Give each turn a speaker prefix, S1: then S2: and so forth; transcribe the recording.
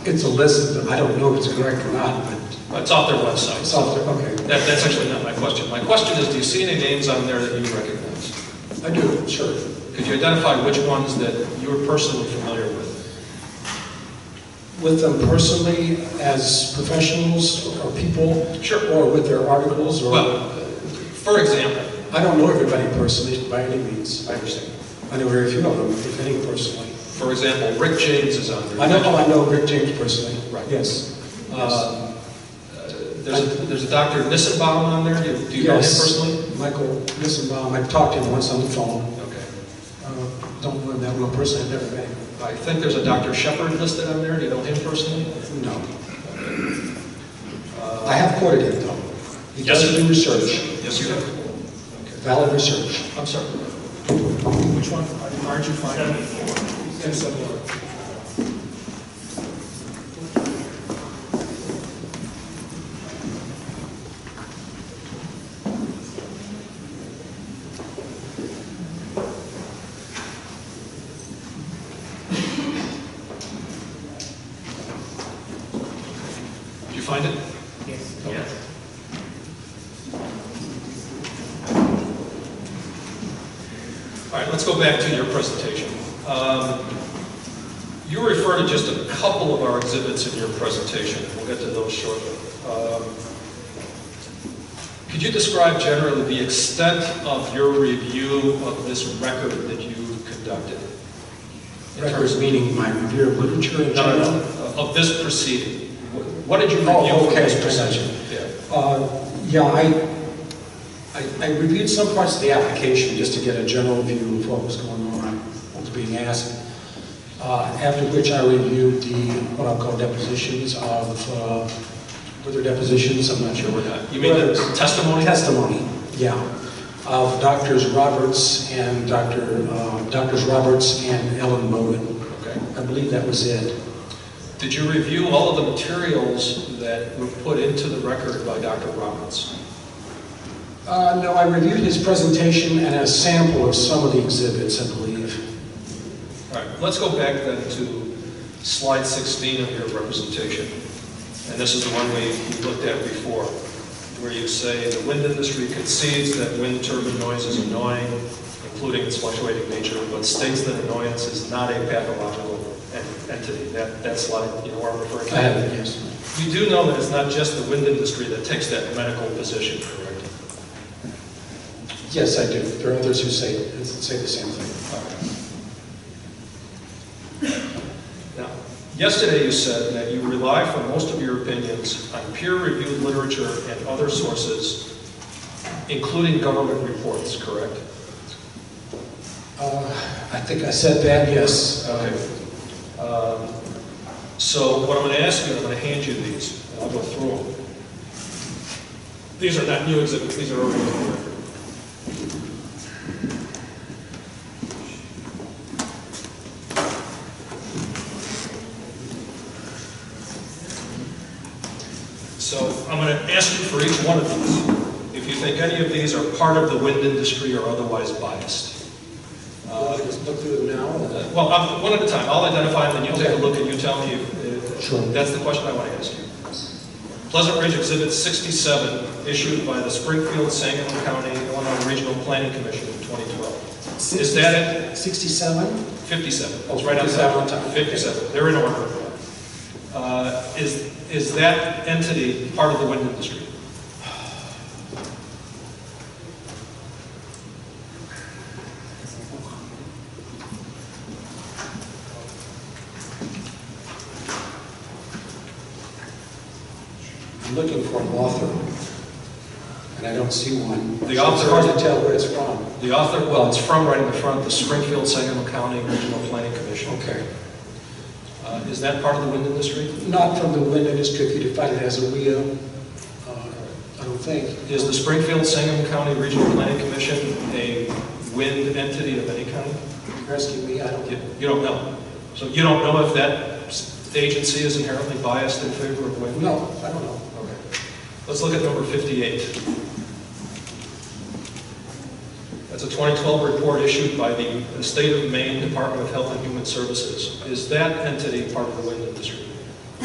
S1: It's a list, but I don't know if it's correct or not, but
S2: It's off their website.
S1: it's
S2: so
S1: off there, okay.
S2: That, that's actually not my question. My question is, do you see any names on there that you recognize?
S1: I do, sure.
S2: Could you identify which ones that you're personally familiar with?
S1: With them personally, as professionals or people?
S2: Sure.
S1: Or with their articles, or,
S2: Well- For example,
S1: I don't know everybody personally, by any means, I understand. I know very few of them, if any personally.
S2: for example, Rick James is on there.
S1: I know, oh, I know Rick James personally.
S2: Right.
S1: Yes. Uh,
S2: There's, a- there's a Dr. Nissenbaum on there. Do you- do you know him
S1: yes,
S2: personally?
S1: Michael Nissenbaum, I've talked to him once on the phone.
S2: Okay.
S1: Uh, Don't know him that well personally, I've never met him.
S2: I think there's a Dr. Shepard listed on there. Do you know him personally?
S1: No. I have quoted him, though. He
S2: Yes,
S1: does
S2: sir.
S1: do research,
S2: Yes, you do.
S1: valid research.
S2: I'm sorry.
S3: Which one? Aren't you finding? Seventy-four.
S2: Did you find it?
S3: Yes.
S2: Yes. All right, let's go back to your presentation. Um, You refer to just a couple of our exhibits in your presentation, we'll get to those shortly. Um, Could you describe generally the extent of your review of this record that you conducted? In terms
S1: Records meaning my review of literature in
S2: No, no,
S1: general.
S2: no, of this proceeding. What- What did you
S1: Oh,
S2: review from
S1: okay,
S2: this
S1: I
S2: proceeding?
S1: gotcha.
S2: Yeah.
S1: Uh, Yeah, I, I- I reviewed some parts of the application just to get a general view of what was going on, what was being asked. Uh, After which I reviewed the, what I'll call depositions of, uh, were there depositions? I'm not sure.
S2: Uh, You mean the
S1: Whether-
S2: testimony?
S1: testimony, yeah, of Doctors Roberts and Dr., uh, Doctors Roberts and Ellen Bowden.
S2: Okay.
S1: I believe that was it.
S2: Did you review all of the materials that were put into the record by Dr. Roberts?
S1: Uh, No, I reviewed his presentation and a sample of some of the exhibits, I believe.
S2: All right, let's go back then to slide 16 of your representation. And this is the one we looked at before, where you say, "The wind industry concedes that wind turbine noise is annoying, including its fluctuating nature, but states that annoyance is not a pathological en- entity." That that slide, you know where I'm referring to?
S1: I have it, yes.
S2: You do know that it's not just the wind industry that takes that medical position, correct?
S1: Yes, I do. There are others who say, say the same thing.
S2: Now, yesterday you said that you rely for most of your opinions on peer-reviewed literature and other sources, including government reports, correct?
S1: Uh, I think I said that, yes.
S2: Okay. Um, So what I'm going to ask you, I'm going to hand you these, and I'll go through them. These are not new exhibits, these are already in the record. So I'm going to ask you for each one of these, if you think any of these are part of the wind industry or otherwise biissed.
S1: Uh, Let's look through them now.
S2: Well, I'm- one at a time, I'll identify them, and you take a look, and you tell me if...
S1: Sure.
S2: That's the question I want to ask you. Pleasant Ridge Exhibit 67, issued by the Springfield Sangamon County Illinois Regional Planning Commission in 2012. Is that it?
S1: 67?
S2: 57,
S1: Oh,
S2: it's right on
S1: 57 on
S2: top.
S1: top.
S2: 57, they're in order. Uh, Is, is that entity part of the wind industry?
S1: I'm looking for an author, and I don't see one.
S2: The
S1: So
S2: author-
S1: It's hard to tell where it's from.
S2: The author, well, it's from right in the front, the Springfield Sangamon County Regional Planning Commission.
S1: Okay.
S2: Uh, Is that part of the wind industry?
S1: Not from the wind industry, if you define it as a wheel, uh, I don't think.
S2: Is the Springfield Sangamon County Regional Planning Commission a wind entity of any kind?
S1: Rescue me, I don't
S2: You
S1: get
S2: you don't know. So you don't know if that s- agency is inherently biased in favor of wind?
S1: No, I don't know.
S2: Okay. Let's look at number 58. That's a 2012 report issued by the State of Maine Department of Health and Human Services. Is that entity part of the wind industry?